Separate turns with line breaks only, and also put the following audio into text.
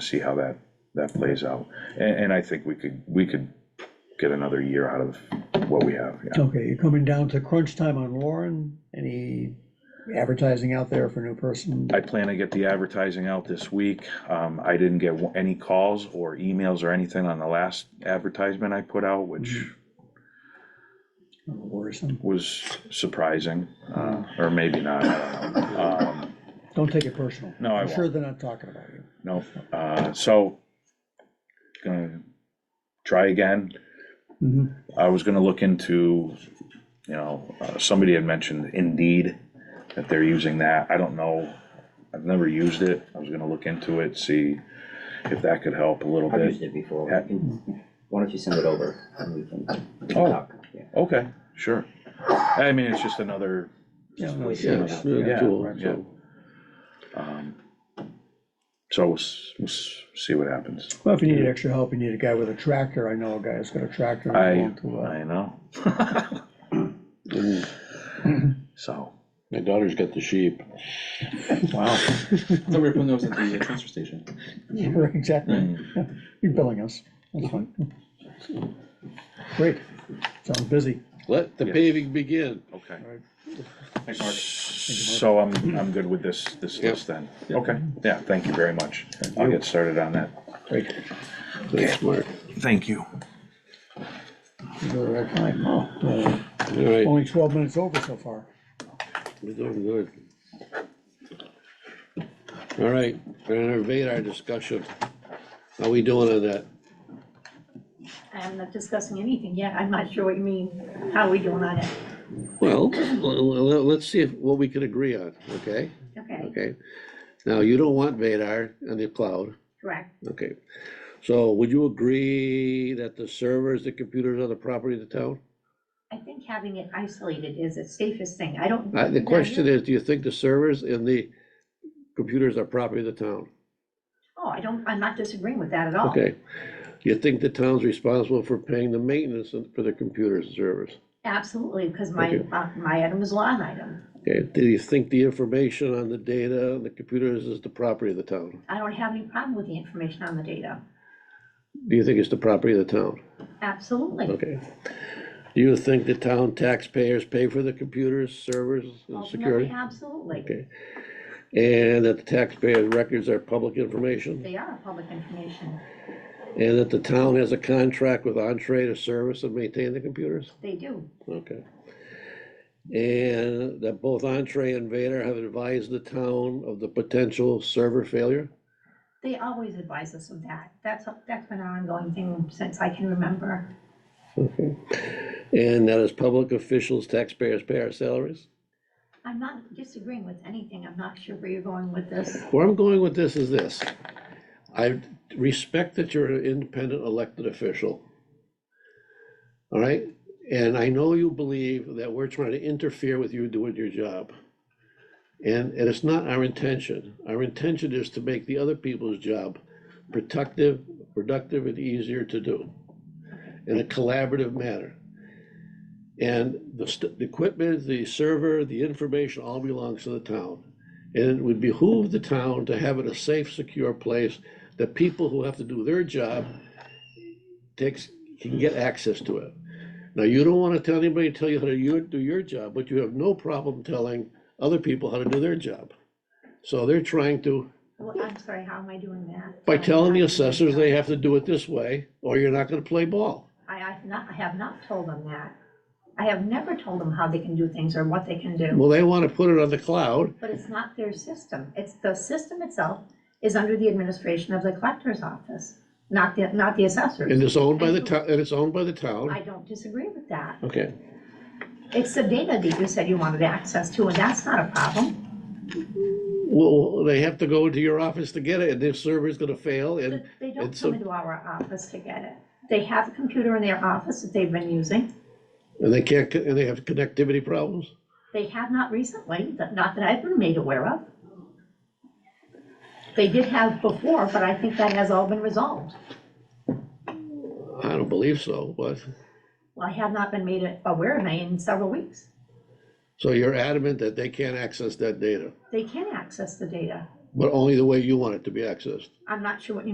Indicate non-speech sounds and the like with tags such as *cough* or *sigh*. see how that, that plays out. And, and I think we could, we could get another year out of what we have, yeah.
Okay, you're coming down to crunch time on Lauren. Any advertising out there for new person?
I plan to get the advertising out this week. Um, I didn't get wa- any calls or emails or anything on the last advertisement I put out, which
Worrisome.
was surprising, uh, or maybe not, I don't know. Um,
Don't take it personal.
No, I
I'm sure
won't.
they're not talking about you.
No, uh, so, gonna try again.
Mhm.
I was gonna look into, you know, uh, somebody had mentioned Indeed, that they're using that, I don't know, I've never used it, I was gonna look into it, see if that could help a little
I've
bit.
used it before,
Yeah.
We can- why don't you send it over and we can, we can
Oh.
talk, yeah.
Okay, sure, I mean, it's just another,
Yeah, no,
Voice
Yeah,
it
it's
out.
really
Yeah,
cool,
right, yeah.
so,
um, so we'll, s- we'll s- see what happens.
Well, if you need extra help, you need a guy with a tractor. I know a guy that's got a tractor.
I,
and going to, uh,
I know, *laughs*
and
so,
my daughter's got the sheep.
wow.
Somebody from those at the uh, transfer station.
Right, *laughs* Exactly.
Mm.
*laughs* You're billing us. That's fine. Great. Sounds busy.
Let the
Yes.
paving begin.
Okay.
Thanks, Mark.
So I'm, I'm good with this, this
Yep.
list then? Okay, yeah, thank you very much. I'll get started on that.
Great.
That's Mark.
Thank you.
You go to that time. Oh, uh,
All right,
Only twelve minutes over so far.
we're doing good. All right, we're gonna invade our discussion. How we doing on that?
I'm not discussing anything yet, I'm not sure what you mean, how are we doing on it?
Well, l- l- let's see if- what we can agree on, okay?
Okay,
Okay. Now, you don't want Vadar on the cloud,
correct,
okay? So would you agree that the servers, the computers are the property of the town?
I think having it isolated is the safest thing, I don't.
Uh, The question is, do you think the servers and the computers are property of the town?
Oh, I don't, I'm not disagreeing with that at all.
Okay. You think the town's responsible for paying the maintenance and- for the computers and servers?
Absolutely, because my,
Okay.
uh, my item was lawn item,
Okay, do you think the information on the data and the computers is the property of the town?
I don't have any problem with the information on the data,
Do you think it's the property of the town?
absolutely,
Okay. Do you think the town taxpayers pay for the computers, servers, and
ultimately,
security?
absolutely,
Okay. And that the taxpayers' records are public information?
they are public information,
And that the town has a contract with Entree to service and maintain the computers?
they do,
Okay. And that both Entree and Vader have advised the town of the potential server failure?
they always advise us of that, that's, that's been an ongoing thing since I can remember,
Okay. And that as public officials, taxpayers pay our salaries?
I'm not disagreeing with anything, I'm not sure where you're going with this.
Where I'm going with this is this. I respect that you're an independent elected official. All right? And I know you believe that we're trying to interfere with you doing your job. And, and it's not our intention. Our intention is to make the other people's job productive, productive and easier to do in a collaborative manner. And the, st- the equipment, the server, the information all belongs to the town. And it would behoove the town to have it a safe, secure place that people who have to do their job takes, can get access to it. Now, you don't want to tell anybody, tell you how to you- do your job, but you have no problem telling other people how to do their job. So they're trying to,
Well, I'm sorry, how am I doing that?
by telling the assessors they have to do it this way, or you're not gonna play ball.
I, I've not, I have not told them that. I have never told them how they can do things or what they can do,
Well, they want to put it on the cloud,
but it's not their system. It's, the system itself is under the administration of the collector's office, not the, not the
and
assessors.
it's owned by the town, and it's owned by the town.
I don't disagree with that.
Okay,
It's the data that you said you wanted access to, and that's not a problem.
well, they have to go into your office to get it, and their server's gonna fail, and
But They don't
it's a-
come into our office to get it. They have a computer in their office that they've been using.
And they can't, and they have connectivity problems?
They have not recently, that- not that I've been made aware of. They did have before, but I think that has all been resolved.
I don't believe so, but,
Well, I have not been made aware of it in several weeks.
so you're adamant that they can't access that data,
They can access the data.
but only the way you want it to be accessed?
I'm not sure what